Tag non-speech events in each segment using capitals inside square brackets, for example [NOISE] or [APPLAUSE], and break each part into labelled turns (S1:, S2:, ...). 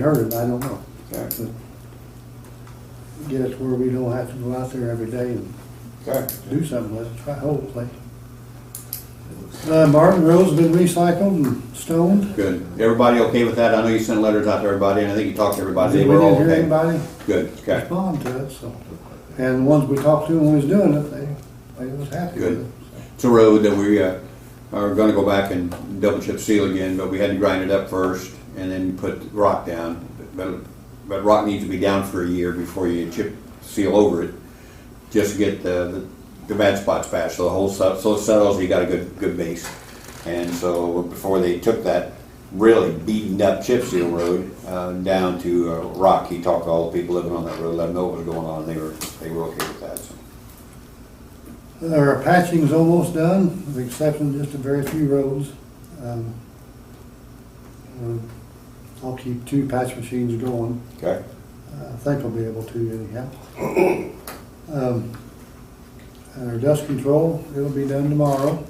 S1: heard it, I don't know.
S2: Okay,
S1: Get us where we don't have to go out there every day and
S2: okay.
S1: do something with it, try hopefully. Uh, Martin Road's been recycled and stoned.
S3: Good. Everybody okay with that? I know you sent letters out to everybody, and I think you talked to everybody. They
S1: Did we
S3: were all
S1: didn't hear
S3: okay.
S1: anybody
S3: Good, okay.
S1: respond to it, so. And the ones we talked to when we was doing it, they, they was happy with
S3: Good.
S1: it.
S3: It's a road that we uh, are gonna go back and double chip seal again, but we had to grind it up first and then put rock down. But, but rock needs to be down for a year before you chip seal over it, just to get the, the bad spots patched, so the whole, set- so it settles, you got a good, good base. And so before they took that really beaten up chip seal road uh, down to uh, rock, he talked to all the people living on that road, let them know what was going on, and they were, they were okay with that, so.
S1: Our patching's almost done, with the exception of just a very few roads. Um, um, I'll keep two patch machines going.
S3: Okay,
S1: I think I'll be able to anyhow. Um, Our dust control, it'll be done tomorrow.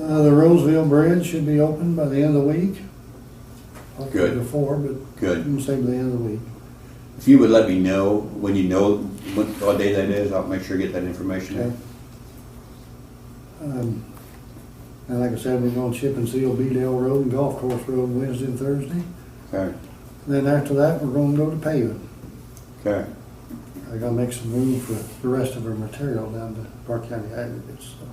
S1: Uh, The Roseville Bridge should be open by the end of the week. Hopefully
S3: Good.
S1: Before, but
S3: good.
S1: I'm saying by the end of the week.
S3: If you would let me know when you know what, what day that is, I'll make sure to get that information.
S1: Okay. Um, And like I said, we're going to chip and seal Beadle Road and Golf Course Road Wednesday and Thursday.
S3: Okay,
S1: Then after that, we're going to go to paving.
S3: okay,
S1: I gotta make some room for the rest of our material down to Park County aggregates, so.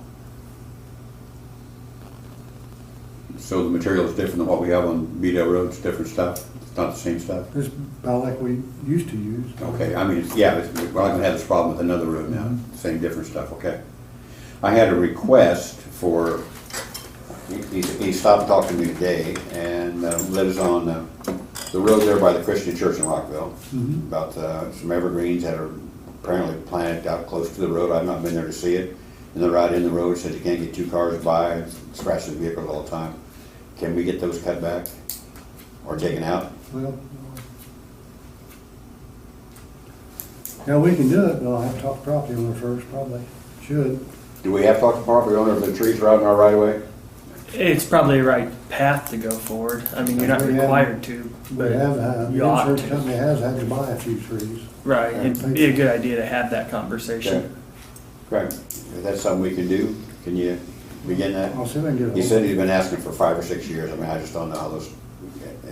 S3: so the material is different than what we have on Beedale Road, it's different stuff, it's not the same stuff?
S1: It's about like we used to use.
S3: Okay, I mean, it's- yeah, it's- we're not gonna have this problem with another road now, same different stuff, okay. I had a request for, he, he stopped talking to me today and uh, lives on uh, the road there by the Christian Church in Rockville.
S1: Mhm.
S3: About uh, some evergreens that are apparently planted out close to the road, I've not been there to see it. And they're out in the road, says you can't get two cars by, it scratches vehicles all the time. Can we get those cut back or taken out?
S1: Well. Now, we can do it, but I'll have to talk to property owner first, probably, should.
S3: Do we have to talk to property owner if the trees are out in our right of way?
S4: It's probably the right path to go forward. I mean, you're not
S1: We have-
S4: required to,
S1: We
S4: but
S1: have, uh,
S4: you
S1: the
S4: ought
S1: insurance
S4: to.
S1: company has had to buy a few trees.
S4: Right, it'd be a good idea to have that
S3: Okay.
S4: conversation.
S3: Correct. If that's something we can do, can you begin that?
S1: I'll see if I can get a
S3: He
S1: hold
S3: said
S1: of
S3: he's been asking for five or six years. I mean, I just don't know how those,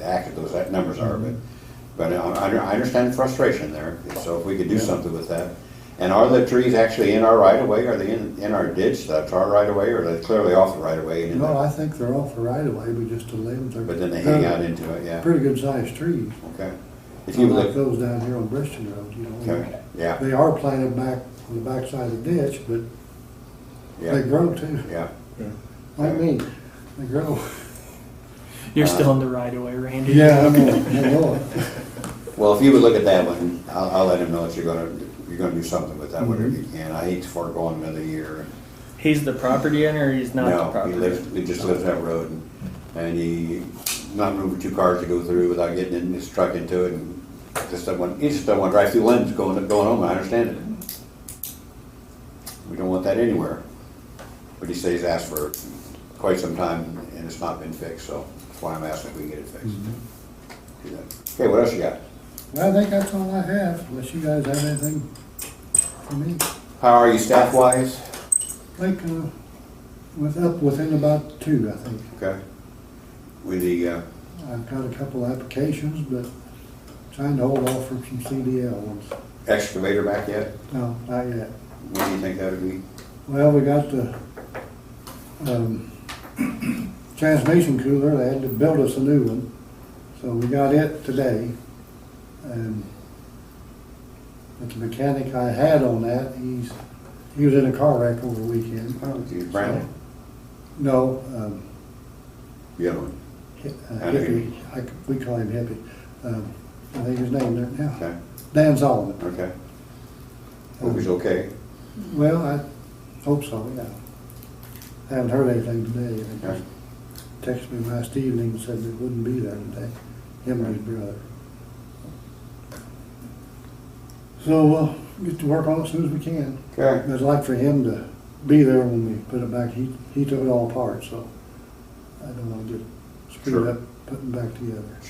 S3: accurate those numbers are, but, but I, I understand the frustration there. So if we could do something with that. And are the trees actually in our right of way? Are they in, in our ditch that's our right of way or are they clearly off the right of way? and in
S1: No,
S3: the-
S1: I think they're off the right of way, we just to live there.
S3: But then they hang out into it, yeah,
S1: Pretty good sized trees,
S3: okay. If you
S1: like
S3: look,
S1: those down here on Bristol Road, you know.
S3: okay, yeah,
S1: They are planted back on the backside of the ditch, but they
S3: yeah,
S1: grow too,
S3: yeah.
S1: like me, they grow.
S4: You're still in the right of way, Randy.
S1: Uh, Yeah, I know, I know.
S3: Well, if you would look at that one, I'll, I'll let him know that you're gonna, you're gonna do something with that, whatever you
S1: Mm-hmm.
S3: can. I hate to forego another year.
S4: He's the property owner, or he's not the
S3: No, he
S4: property
S3: lives, he just lives that road and, and he, not moving two cars to go through without getting in his truck into it and just don't want, he just don't want to drive through lanes going, going home, I understand it. We don't want that anywhere. But he says he's asked for quite some time and it's not been fixed, so that's why I'm asking if we can get it fixed.
S1: Mm-hmm.
S3: Do that. Okay, what else you got?
S1: Well, I think that's all I have, unless you guys have anything for me.
S3: How are you staff wise?
S1: Like, uh, with up within about two, I think.
S3: Okay. With the, uh,
S1: I've got a couple of applications, but trying to hold off for some CDL ones.
S3: excavator back yet?
S1: No, not yet.
S3: When do you think that would be?
S1: Well, we got the, um, [CLEARS THROAT] transmission cooler, they had to build us a new one, so we got it today. Um, But the mechanic I had on that, he's, he was in a car wreck over the weekend.
S3: Oh, it's Brandon.
S1: No, um,
S3: The other one,
S1: hi- uh,
S3: I know
S1: hippie,
S3: him.
S1: I, c- we call him hippie, um, I think his name there now,
S3: okay,
S1: Dan Solomon.
S3: okay. Hope he's okay.
S1: Well, I hope so, yeah. Haven't heard anything today. They
S3: Okay.
S1: Texted me last evening and said they wouldn't be there today, him and his brother. So we'll get to work on it as soon as we can.
S3: Okay,
S1: I'd like for him to be there when we put it back. He, he took it all apart, so I don't want to get screwed
S3: Sure.
S1: up putting it back together.